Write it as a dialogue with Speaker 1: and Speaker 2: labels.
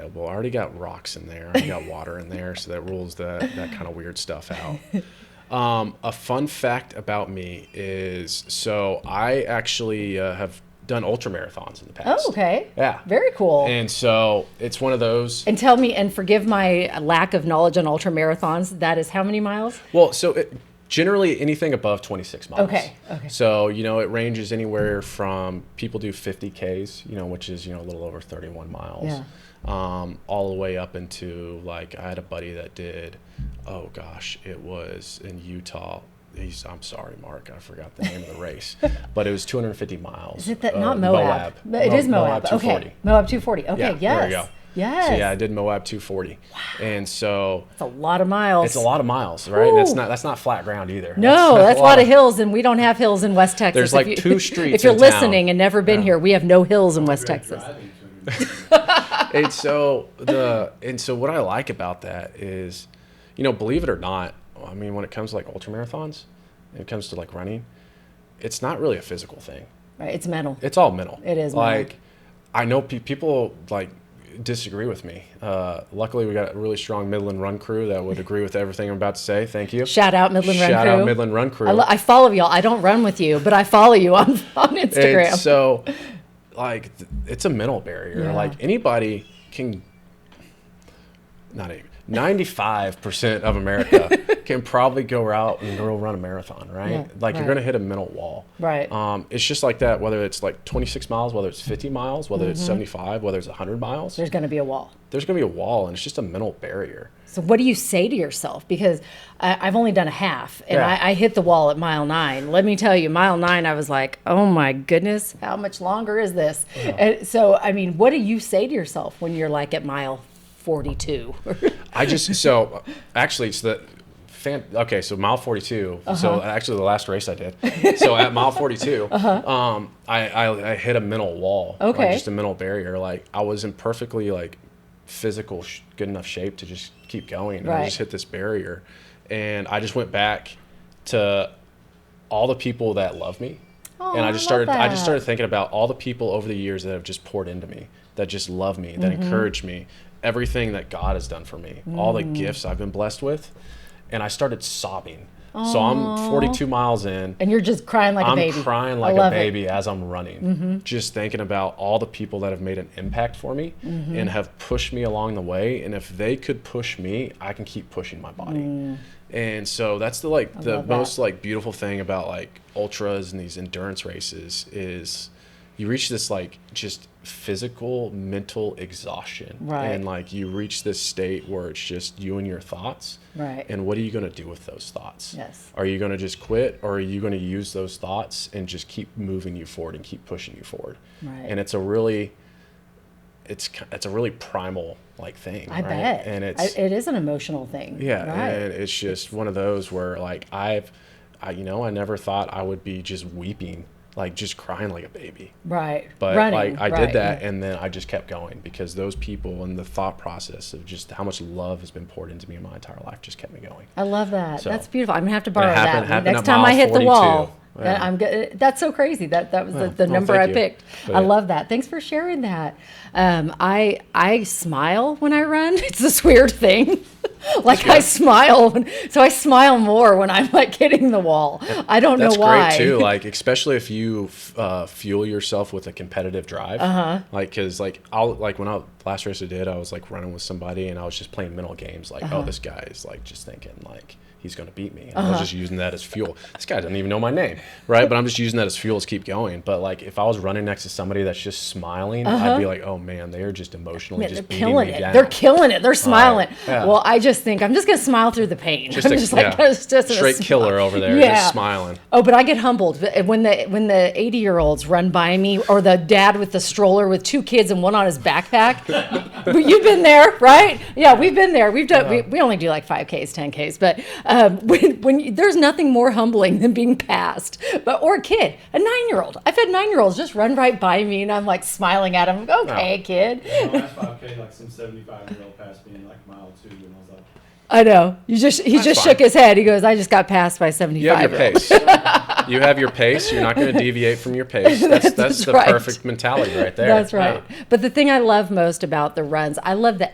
Speaker 1: available. I already got rocks in there. I already got water in there, so that rules that that kind of weird stuff out. Um, a fun fact about me is so I actually uh, have done ultra marathons in the past.
Speaker 2: Oh, okay.
Speaker 1: Yeah.
Speaker 2: Very cool. And,
Speaker 1: And so it's one of those.
Speaker 2: tell me, and forgive my lack of knowledge on ultra marathons. That is how many miles?
Speaker 1: Well, so it, generally anything above 26 miles.
Speaker 2: Okay, okay.
Speaker 1: So, you know, it ranges anywhere from people do 50Ks, you know, which is, you know, a little over 31 miles,
Speaker 2: Yeah.
Speaker 1: um, all the way up into like, I had a buddy that did, oh gosh, it was in Utah. He's, I'm sorry, Mark, I forgot the name of the race, but it was 250 miles.
Speaker 2: Is it that not Moab? But It is Moab. Okay. Moab 240. Okay. yes.
Speaker 1: Yeah, there you go.
Speaker 2: Yes.
Speaker 1: So yeah, I did Moab 240, and so
Speaker 2: It's a lot of miles.
Speaker 1: it's a lot of miles, right? And That's
Speaker 2: Woo.
Speaker 1: not that's not flat ground either.
Speaker 2: No, that's a lot of hills, and we don't have hills in West Texas.
Speaker 1: There's
Speaker 2: If
Speaker 1: like
Speaker 2: you-
Speaker 1: two streets
Speaker 2: If you're
Speaker 1: in town.
Speaker 2: listening and never been here, we have no hills in West Texas.
Speaker 1: And so the and so what I like about that is, you know, believe it or not, I mean, when it comes to like ultra marathons, when it comes to like running, it's not really a physical thing.
Speaker 2: Right? It's mental.
Speaker 1: It's all mental.
Speaker 2: It is mental.
Speaker 1: like I know pe- people like disagree with me. Uh, luckily, we got a really strong Midland Run crew that would agree with everything I'm about to say. Thank you.
Speaker 2: Shout out Midland Run
Speaker 1: Shout
Speaker 2: Crew.
Speaker 1: out Midland Run Crew.
Speaker 2: I, lo- I follow y'all. I don't run with you, but I follow you on, on Instagram.
Speaker 1: And so, like, th- it's a mental barrier.
Speaker 2: Yeah.
Speaker 1: Like anybody can, not even ninety-five percent of America can probably go out and go run a marathon, right?
Speaker 2: Yeah,
Speaker 1: like
Speaker 2: right.
Speaker 1: you're gonna hit a mental wall,
Speaker 2: Right.
Speaker 1: Um, it's just like that. Whether it's like twenty-six miles, whether it's fifty miles, whether it's seventy-five, whether it's hundred miles,
Speaker 2: Mm-hmm. There's going to be a wall.
Speaker 1: there's gonna be a wall, and it's just a mental barrier.
Speaker 2: So what do you say to yourself? Because I, I've only done a half, and
Speaker 1: Yeah.
Speaker 2: I, I hit the wall at mile nine. Let me tell you, mile nine, I was like, "Oh my goodness, how much longer is this?" And so, I mean, what do you say to yourself when you're like at mile forty-two?
Speaker 1: I just so actually it's the fan, okay so mile 42
Speaker 2: Uh-huh.
Speaker 1: so actually the last race I did so at mile 42 um I, I I hit a mental wall like,
Speaker 2: Uh-huh. Okay.
Speaker 1: just a mental barrier like I was in perfectly like physical sh- good enough shape to just keep going and I
Speaker 2: Right.
Speaker 1: just hit this barrier and I just went back to all the people that love me
Speaker 2: Oh,
Speaker 1: and
Speaker 2: I
Speaker 1: I just
Speaker 2: love
Speaker 1: started I just
Speaker 2: that.
Speaker 1: started thinking about all the people over the years that have just poured into me, that just love me, that
Speaker 2: Mm-hmm.
Speaker 1: encourage me, everything that God has done for me, all
Speaker 2: Mm.
Speaker 1: the gifts I've been blessed with, and I started sobbing. So I'm 42 miles in.
Speaker 2: and you're just crying like a
Speaker 1: I'm
Speaker 2: baby.
Speaker 1: crying
Speaker 2: I
Speaker 1: like a
Speaker 2: love it. Mm-hmm.
Speaker 1: baby as I'm running, just thinking about all the people that have made an impact for me
Speaker 2: Mm-hmm.
Speaker 1: and have pushed me along the way. And if they could push me, I can keep pushing my body. And so that's the like the
Speaker 2: Mm. love that.
Speaker 1: most like beautiful thing about like ultras and these endurance races is you reach this like just physical mental exhaustion
Speaker 2: Right.
Speaker 1: and like you reach this state where it's just you and your thoughts
Speaker 2: Right.
Speaker 1: and what are you going to do with those thoughts
Speaker 2: Yes.
Speaker 1: are you going to just quit or are you going to use those thoughts and just keep moving you forward and keep pushing you forward
Speaker 2: Right.
Speaker 1: and it's a really it's ki- it's a really primal like thing
Speaker 2: I
Speaker 1: right?
Speaker 2: bet.
Speaker 1: and
Speaker 2: I-
Speaker 1: it's
Speaker 2: it is an emotional thing.
Speaker 1: yeah
Speaker 2: Right.
Speaker 1: and it's just one of those where like i've I, you know i never thought i would be just weeping like just crying like a baby
Speaker 2: right.
Speaker 1: but
Speaker 2: Running,
Speaker 1: like i
Speaker 2: right.
Speaker 1: did that and then i just kept going because those people and the thought process of just how much love has been poured into me in my entire life just kept me going
Speaker 2: I love that.
Speaker 1: So-
Speaker 2: that's beautiful. I'm gonna have to borrow
Speaker 1: happened-
Speaker 2: that
Speaker 1: happened
Speaker 2: next
Speaker 1: at
Speaker 2: time I
Speaker 1: mile
Speaker 2: hit the wall.
Speaker 1: 42.
Speaker 2: that
Speaker 1: Yeah.
Speaker 2: I'm good. That's so crazy. That that was the, the
Speaker 1: well,
Speaker 2: number
Speaker 1: thank
Speaker 2: I
Speaker 1: you.
Speaker 2: picked.
Speaker 1: But-
Speaker 2: I love that. Thanks for sharing that. Um, I I smile when I run. It's this weird thing. like I smile, when, so I smile more when I'm like hitting the wall. I don't
Speaker 1: That's
Speaker 2: know why.
Speaker 1: great too. Like especially if you f- uh, fuel yourself with a competitive drive. Uh-huh. Like because like I'll like when I last race I did, I was like running with somebody and I was just playing mental games. Like
Speaker 2: Uh-huh.
Speaker 1: oh, this guy is like just thinking like he's gonna beat me. And I was just using that as fuel. This guy doesn't even know my name, right? But I'm just using that as fuel to keep going. But like if I was running next to somebody that's just smiling, I'd be like, oh man, they are just emotionally
Speaker 2: Uh-huh. Man,
Speaker 1: just
Speaker 2: they're
Speaker 1: beating
Speaker 2: killing
Speaker 1: me
Speaker 2: it.
Speaker 1: down.
Speaker 2: They're killing it. They're smiling.
Speaker 1: yeah.
Speaker 2: Well, I just think I'm just gonna smile through the pain.
Speaker 1: Just
Speaker 2: I'm
Speaker 1: a-
Speaker 2: just like
Speaker 1: yeah.
Speaker 2: it's just a
Speaker 1: straight
Speaker 2: smile.
Speaker 1: killer over there,
Speaker 2: Yeah.
Speaker 1: just smiling.
Speaker 2: Oh, but I get humbled when the when the eighty year olds run by me, or the dad with the stroller with two kids and one on his backpack. but you've been there, right? Yeah, we've been there. We've done. We, we only do like five ks, ten ks, but um, when when you, there's nothing more humbling than being passed, but or a kid, a nine year old. I've had nine year olds just run right by me, and I'm like smiling at them.
Speaker 1: Oh.
Speaker 2: Okay, kid.
Speaker 3: My last 5K, like some 75 year old passed me in like mile two, and I was like,
Speaker 2: I know. You just he just
Speaker 1: fine.
Speaker 2: shook his head. He goes, I just got passed by seventy
Speaker 1: You have
Speaker 2: five.
Speaker 1: your pace. you have your pace. You're not going to deviate from your pace. That's that's,
Speaker 2: That's
Speaker 1: the
Speaker 2: right.
Speaker 1: perfect mentality right there.
Speaker 2: That's
Speaker 1: Yeah.
Speaker 2: right. But the thing I love most about the runs, I love the